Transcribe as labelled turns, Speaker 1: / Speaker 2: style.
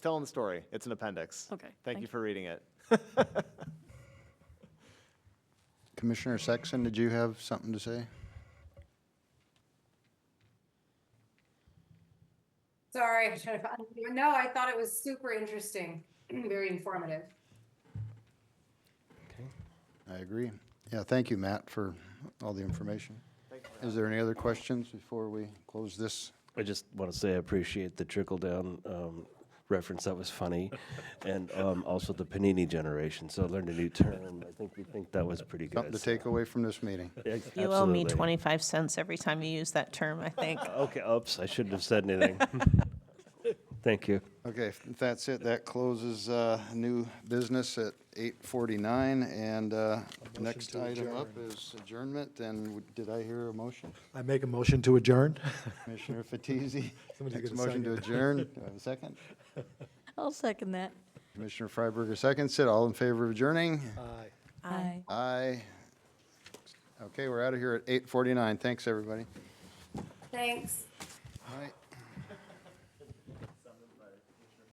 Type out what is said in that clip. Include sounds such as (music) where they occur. Speaker 1: telling the story. It's an appendix.
Speaker 2: Okay,
Speaker 1: Thank
Speaker 2: thank
Speaker 1: you
Speaker 2: you.
Speaker 1: for reading it.
Speaker 3: Commissioner Sexton, did you have something to say?
Speaker 4: Sorry, I should have- no, I thought it was super interesting, (clears throat) very informative.
Speaker 3: I agree. Yeah, thank you, Matt, for all the information.
Speaker 1: Thank you for
Speaker 3: Is there any other questions before we close this?
Speaker 5: I just want to say I appreciate the trickle down um, reference. That was funny, and um, also the panini generation. So I learned a new term. I think we think that was pretty good.
Speaker 3: Something to take away from this meeting?
Speaker 5: Yeah,
Speaker 6: You owe me
Speaker 5: absolutely.
Speaker 6: 25 cents every time you use that term, I think.
Speaker 5: Okay. Oops. I shouldn't have
Speaker 3: (laughs)
Speaker 5: said anything. Thank you.
Speaker 3: Okay, if that's it, that closes uh, new business at 8:49, and uh, next item up is adjournment, and w- did I hear a motion?
Speaker 7: I make a motion to adjourn.
Speaker 3: Commissioner Fatisi,
Speaker 7: Somebody's
Speaker 3: next
Speaker 7: gonna
Speaker 3: motion to
Speaker 7: second.
Speaker 3: adjourn, Do I have a second?
Speaker 2: I'll second that.
Speaker 3: Commissioner Freiberger, seconds it, all in favor of adjourning?
Speaker 7: Aye.
Speaker 2: Aye.
Speaker 3: Aye. Okay, we're out of here at 8:49, thanks, everybody.
Speaker 4: Thanks.
Speaker 3: All right.